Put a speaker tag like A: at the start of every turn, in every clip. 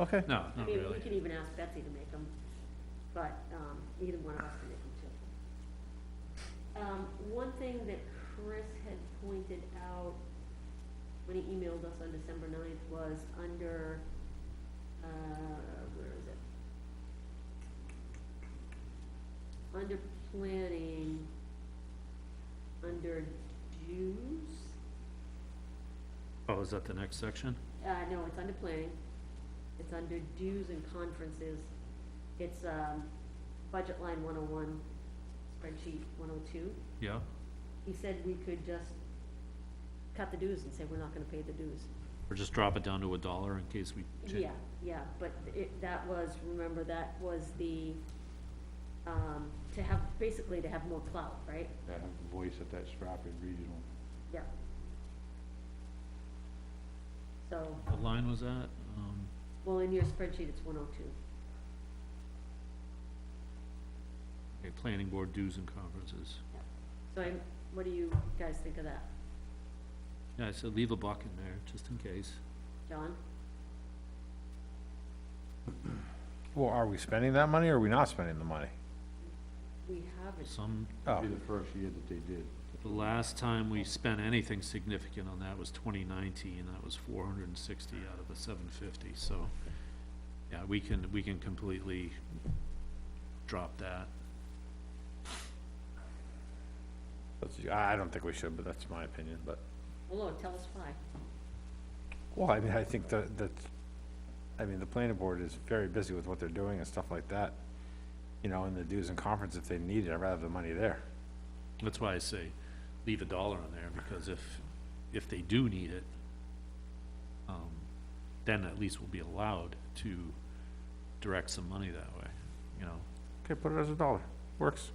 A: Okay,
B: No,
C: I mean,
B: not
C: we
B: really.
C: can even ask Betsy to make them, but, um, either one of us can make them too. Um, one thing that Chris had pointed out when he emailed us on December ninth was under, uh, where is it? Under planning, under dues,
B: Oh, is that the next section?
C: uh, no, it's under planning. It's under dues and conferences. It's, um, budget line one oh one, spreadsheet one oh two.
B: Yeah,
C: He said we could just cut the dues and say we're not gonna pay the dues.
B: or just drop it down to a dollar in case we change.
C: Yeah, yeah, but it, that was, remember, that was the, um, to have, basically to have more clout, right?
D: that have a voice at that Stratford Regional.
C: Yeah. So,
B: What line was that? Um,
C: well, in your spreadsheet, it's one oh two.
B: okay, planning board dues and conferences.
C: So I'm, what do you guys think of that?
B: Yeah, I said leave a buck in there, just in case.
C: John?
A: well, are we spending that money or are we not spending the money?
C: We haven't,
B: Some,
A: Oh,
D: It'd be the first year that they did.
B: the last time we spent anything significant on that was twenty nineteen, that was four hundred and sixty out of the seven fifty, so. Yeah, we can, we can completely drop that.
A: that's- I don't think we should, but that's my opinion, but,
C: well, Lord, tell us why.
A: well, I mean, I think that, that, I mean, the planning board is very busy with what they're doing and stuff like that. You know, and the dues and conference, if they need it, I'd rather have the money there.
B: That's why I say leave a dollar in there, because if, if they do need it, um, then at least we'll be allowed to direct some money that way, you know?
A: Okay, put it as a dollar, works.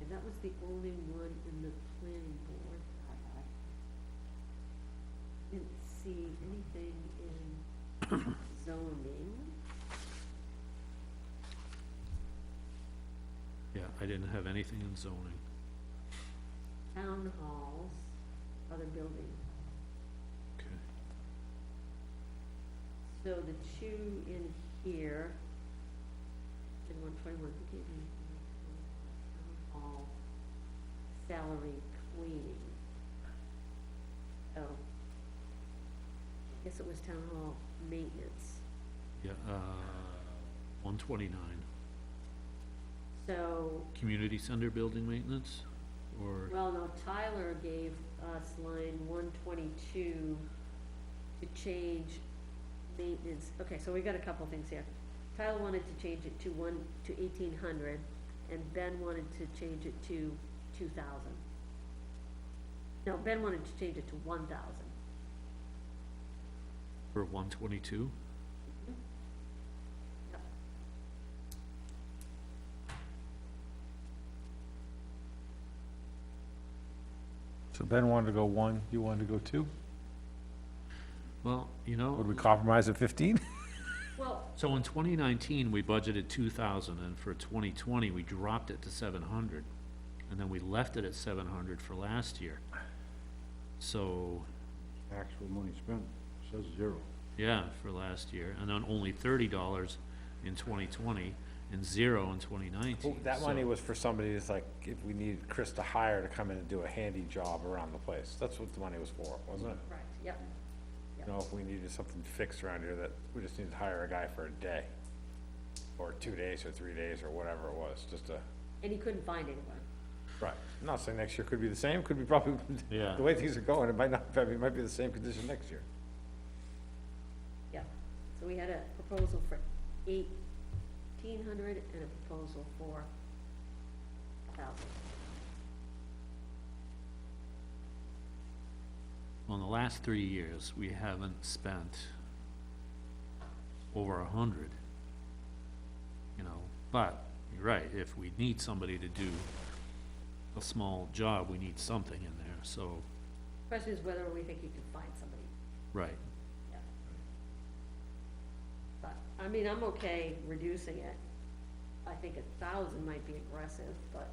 C: And that was the only one in the planning board I had. Didn't see anything in zoning.
B: Yeah, I didn't have anything in zoning.
C: town halls, other buildings.
B: Okay.
C: So the two in here, in one twenty-one, who gave me? the town hall salary cleaning. Oh. I guess it was town hall maintenance.
B: Yeah, uh, one twenty-nine,
C: So,
B: community center building maintenance, or,
C: well, no, Tyler gave us line one twenty-two to change maintenance, okay, so we got a couple things here. Tyler wanted to change it to one, to eighteen hundred, and Ben wanted to change it to two thousand. No, Ben wanted to change it to one thousand.
B: or one twenty-two?
C: Yep.
A: So Ben wanted to go one, you wanted to go two?
B: Well, you know.
A: Would we compromise at fifteen?
C: Well,
B: So in twenty nineteen, we budgeted two thousand, and for twenty twenty, we dropped it to seven hundred, and then we left it at seven hundred for last year. So,
D: Actual money spent says zero.
B: yeah, for last year, and then only thirty dollars in twenty twenty, and zero in twenty nineteen.
A: Oh, That money was for somebody that's like, if we needed Chris to hire to come in and do a handy job around the place, that's what the money was for, wasn't it?
C: correct, yep,
A: You know, if we needed something fixed around here that, we just needed to hire a guy for a day, or two days, or three days, or whatever it was, just a,
C: and he couldn't find anyone.
A: right. I'm not saying next year could be the same, could be probably,
B: Yeah.
A: the way things are going, it might not, it might be the same condition next year.
C: Yeah, so we had a proposal for eighteen hundred and a proposal for thousand.
B: On the last three years, we haven't spent over a hundred. You know, but, you're right, if we need somebody to do a small job, we need something in there, so,
C: Question is whether we think you can find somebody,
B: right.
C: yeah. But, I mean, I'm okay reducing it. I think a thousand might be aggressive, but